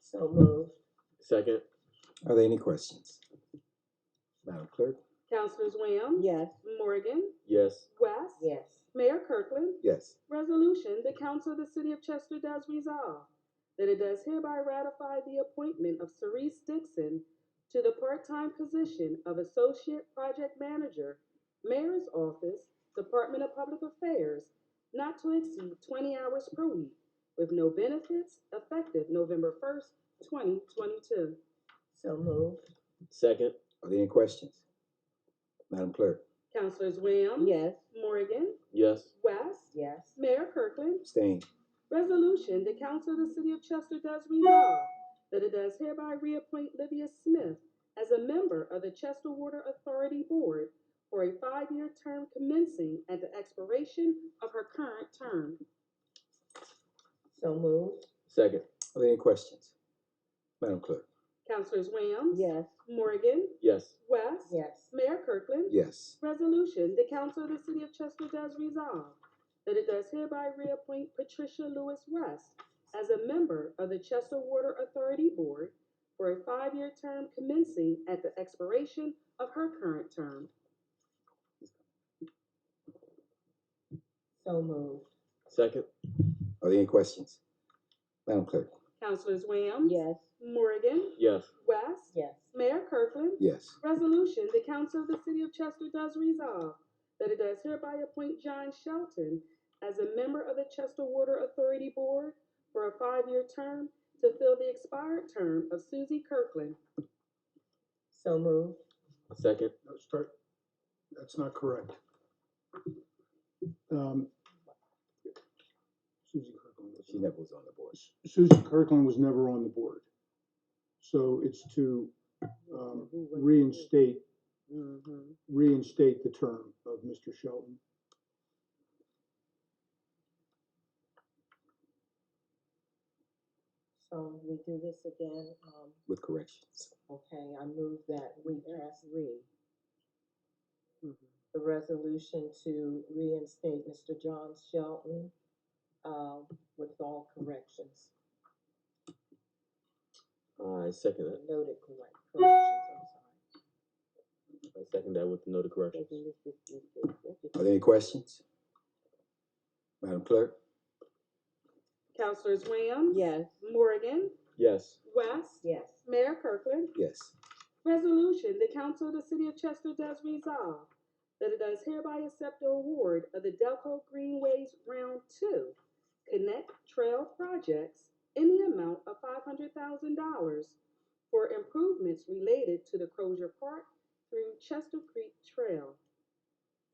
So moved. Second, Are there any questions? Madam Clerk? Councilors Williams? Yes. Morgan? yes. West? Yes. Mayor Kirkland? Yes. Resolution, the Council of the City of Chester does resolve that it does hereby ratify the appointment of Cerise Dixon to the part-time position of Associate Project Manager, Mayor's Office, Department of Public Affairs, not to exceed twenty hours per week, with no benefits, effective November first, twenty twenty-two. So moved. Second, Are there any questions? Madam Clerk? Councilors Williams? Yes. Morgan? yes. West? Yes. Mayor Kirkland? Abstain. Resolution, the Council of the City of Chester does resolve that it does hereby reappoint Livia Smith as a member of the Chester Water Authority Board for a five-year term commencing at the expiration of her current term. So moved. Second, Are there any questions? Madam Clerk? Councilors Williams? Yes. Morgan? yes. West? Yes. Mayor Kirkland? Yes. Resolution, the Council of the City of Chester does resolve that it does hereby reappoint Patricia Lewis West as a member of the Chester Water Authority Board for a five-year term commencing at the expiration of her current term. So moved. Second, Are there any questions? Madam Clerk? Councilors Williams? Yes. Morgan? yes. West? Yes. Mayor Kirkland? Yes. Resolution, the Council of the City of Chester does resolve that it does hereby appoint John Shelton as a member of the Chester Water Authority Board for a five-year term to fill the expired term of Susie Kirkland. So moved. Second, No, start, that's not correct. Um, Susie Kirkland was She never was on the board. Susan Kirkland was never on the board. So it's to um, reinstate, Mhm. reinstate the term of Mr. Shelton. So we do this again, um, With corrections. okay, I move that we pass re. The resolution to reinstate Mr. John Shelton, um, with all corrections, I second that. noted correct, corrections, I second that with the noted I'm corrections. sorry. Are there any questions? Madam Clerk? Councilors Williams? Yes. Morgan? Yes. West? Yes. Mayor Kirkland? Yes. Resolution, the Council of the City of Chester does resolve that it does hereby accept the award of the Delco Greenways Round Two Connect Trail Projects in the amount of five hundred thousand dollars for improvements related to the Crozier Park through Chester Creek Trail.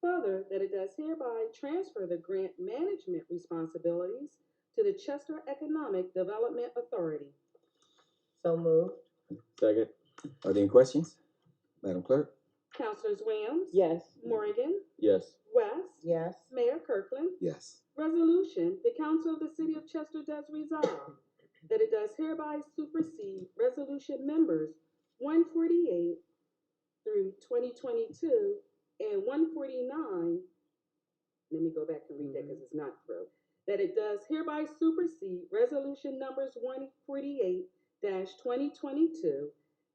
Further, that it does hereby transfer the grant management responsibilities to the Chester Economic Development Authority. So moved. Second, Are there any questions? Madam Clerk? Councilors Williams? Yes. Morgan? yes. West? Yes. Mayor Kirkland. Yes. Resolution, the Council of the City of Chester does resolve that it does hereby supersede Resolution Members one forty-eight through twenty twenty-two and one forty-nine. Let me go back and read that because it's not through. That it does hereby supersede Resolution Numbers one forty-eight twenty twenty-two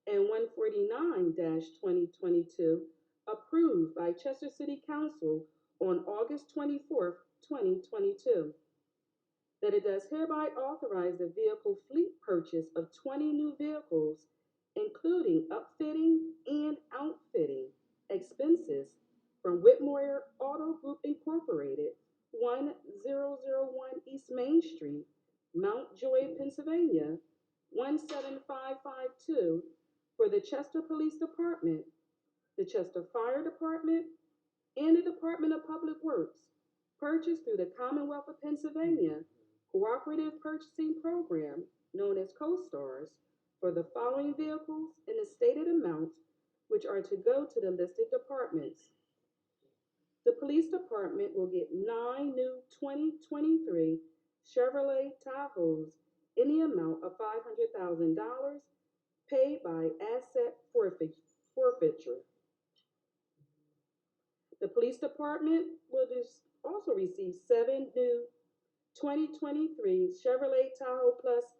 and one forty-nine twenty twenty-two approved by Chester City Council on August twenty-fourth, twenty twenty-two. That it does hereby authorize the vehicle fleet purchase of twenty new vehicles, including upfitting and outfitting expenses from Whitmore Auto Group Incorporated, one zero zero one East Main Street, Mount Joy, Pennsylvania, one seven five five two, for the Chester Police Department, the Chester Fire Department, and the Department of Public Works, purchased through the Commonwealth of Pennsylvania Cooperative Purchasing Program, known as CoStars, for the following vehicles in the stated amounts, which are to go to the listed departments. The police department will get nine new 2023 Chevrolet Tahoes in the amount of $500,000 paid by asset forfeit- forfeiture. The police department will just also receive seven new 2023 Chevrolet Tahoe Plus